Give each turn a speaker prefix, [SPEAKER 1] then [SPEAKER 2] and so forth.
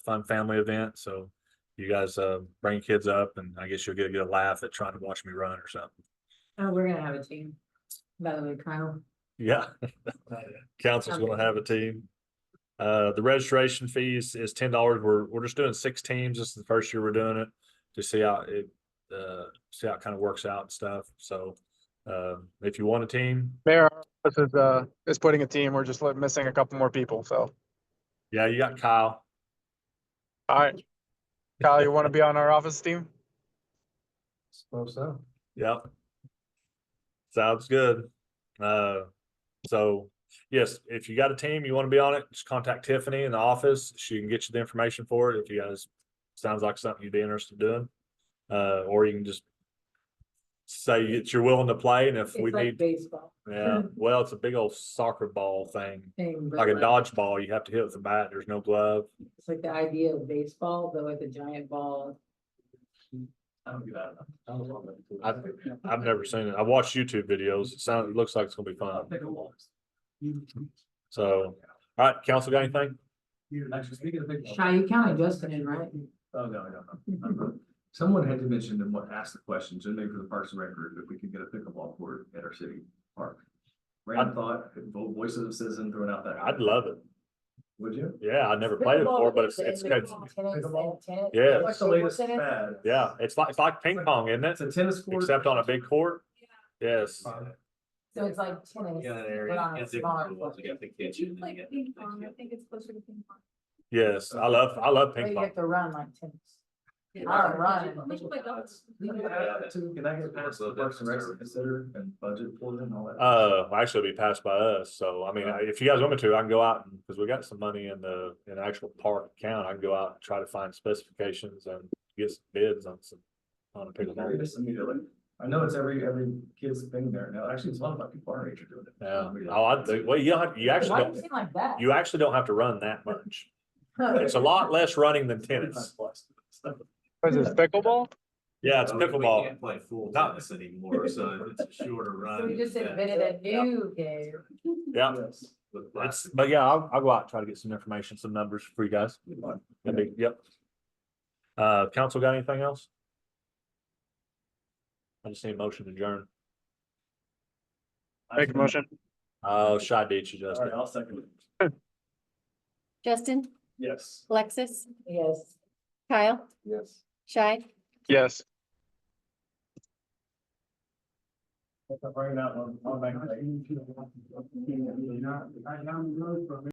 [SPEAKER 1] fun family event, so you guys uh bring kids up and I guess you'll get a good laugh at trying to watch me run or something.
[SPEAKER 2] Oh, we're gonna have a team. By the way, Kyle,
[SPEAKER 1] Yeah. Uh, Council's gonna have a team. Uh, the registration fees is ten dollars. We're, we're just doing six teams. This is the first year we're doing it to see how it, uh, see how it kind of works out and stuff. So, uh, if you want a team,
[SPEAKER 3] Mayor, this is, uh, is putting a team. We're just li- missing a couple more people, so.
[SPEAKER 1] yeah, you got Kyle.
[SPEAKER 3] All right. Kyle, you want to be on our office team?
[SPEAKER 4] Suppose so.
[SPEAKER 1] Yep. Sounds good. Uh, so yes, if you got a team, you want to be on it, just contact Tiffany in the office. She can get you the information for it. If you guys, sounds like something you'd be interested in doing. Uh, or you can just say that you're willing to play and if
[SPEAKER 2] it's
[SPEAKER 1] we
[SPEAKER 2] like
[SPEAKER 1] need,
[SPEAKER 2] baseball
[SPEAKER 1] yeah, well, it's a big old soccer ball thing.
[SPEAKER 2] thing. but
[SPEAKER 1] Like a dodgeball, you have to hit with a bat. There's no glove.
[SPEAKER 2] It's like the idea of baseball, but with a giant ball.
[SPEAKER 4] I don't get out of
[SPEAKER 1] I-
[SPEAKER 4] that.
[SPEAKER 1] I've never seen it. I watched YouTube videos. It sounds, it looks like it's gonna be fun.
[SPEAKER 4] Take a walk.
[SPEAKER 1] So, all right, council got anything?
[SPEAKER 4] Actually, speaking of big. walks-
[SPEAKER 2] Chi, you counted Justin in, right?
[SPEAKER 4] Oh, no, no, no, no. Someone had to mention and what asked the question, so maybe for the Parks and Rec group, if we could get a pickleball court at our city park. Random thought, vo- voices of citizen throwing out that.
[SPEAKER 1] I'd love it.
[SPEAKER 4] Would you?
[SPEAKER 1] Yeah, I never played it before, but it's, it's, it's, Yeah.
[SPEAKER 4] That's like the latest fad.
[SPEAKER 1] yeah, it's like, it's like ping pong, isn't it?
[SPEAKER 4] It's a tennis court.
[SPEAKER 1] Except on a big court. Yes,
[SPEAKER 2] So it's like tennis.
[SPEAKER 4] Yeah, that
[SPEAKER 2] but
[SPEAKER 4] area.
[SPEAKER 2] on a
[SPEAKER 4] It's a-
[SPEAKER 2] smaller
[SPEAKER 4] well,
[SPEAKER 2] court.
[SPEAKER 4] you got the kitchen and you
[SPEAKER 5] Like
[SPEAKER 4] got-
[SPEAKER 5] ping pong, I think it's closer to ping pong.
[SPEAKER 1] yes, I love, I love
[SPEAKER 2] But
[SPEAKER 1] ping
[SPEAKER 2] you
[SPEAKER 1] pong.
[SPEAKER 2] have to run like tennis.
[SPEAKER 5] Alright,
[SPEAKER 2] right.
[SPEAKER 5] We should play golf.
[SPEAKER 4] We can add that too. Can I get past the Parks and Rec to consider and budget for them and all that?
[SPEAKER 1] Uh, well, actually it'll be passed by us, so I mean, I- if you guys want me to, I can go out and, because we got some money in the, in the actual park account, I can go out and try to find specifications and get some bids on some, on a
[SPEAKER 4] Very
[SPEAKER 1] pickleball.
[SPEAKER 4] just immediately. I know it's every, every kid's thing there now. Actually, it's a lot about people our age are doing it.
[SPEAKER 1] Yeah, oh, I, think- well, you don't, have- you actually,
[SPEAKER 2] Why do you
[SPEAKER 1] don't
[SPEAKER 2] seem like that?
[SPEAKER 1] you actually don't have to run that much.
[SPEAKER 2] Huh.
[SPEAKER 1] It's a lot less running than tennis.
[SPEAKER 3] What is this pickleball?
[SPEAKER 1] Yeah,
[SPEAKER 4] Oh,
[SPEAKER 1] it's pickleball.
[SPEAKER 4] play full
[SPEAKER 1] Not-
[SPEAKER 4] anymore, so it's a shorter
[SPEAKER 2] So We just invented a new game.
[SPEAKER 1] Yeah. That's, but yeah, I'll, I'll go out and try to get some information, some numbers for you guys. That'd be- Yep. Uh, council got anything else? I just need a motion to adjourn.
[SPEAKER 3] Make a motion.
[SPEAKER 1] Oh, shy date you
[SPEAKER 4] All
[SPEAKER 1] Justin.
[SPEAKER 4] right, I'll second it.
[SPEAKER 6] Justin,
[SPEAKER 4] Yes.
[SPEAKER 6] Alexis,
[SPEAKER 2] Yes.
[SPEAKER 6] Kyle,
[SPEAKER 4] Yes.
[SPEAKER 6] Shai,
[SPEAKER 3] Yes.
[SPEAKER 4] Bring it out on, on back.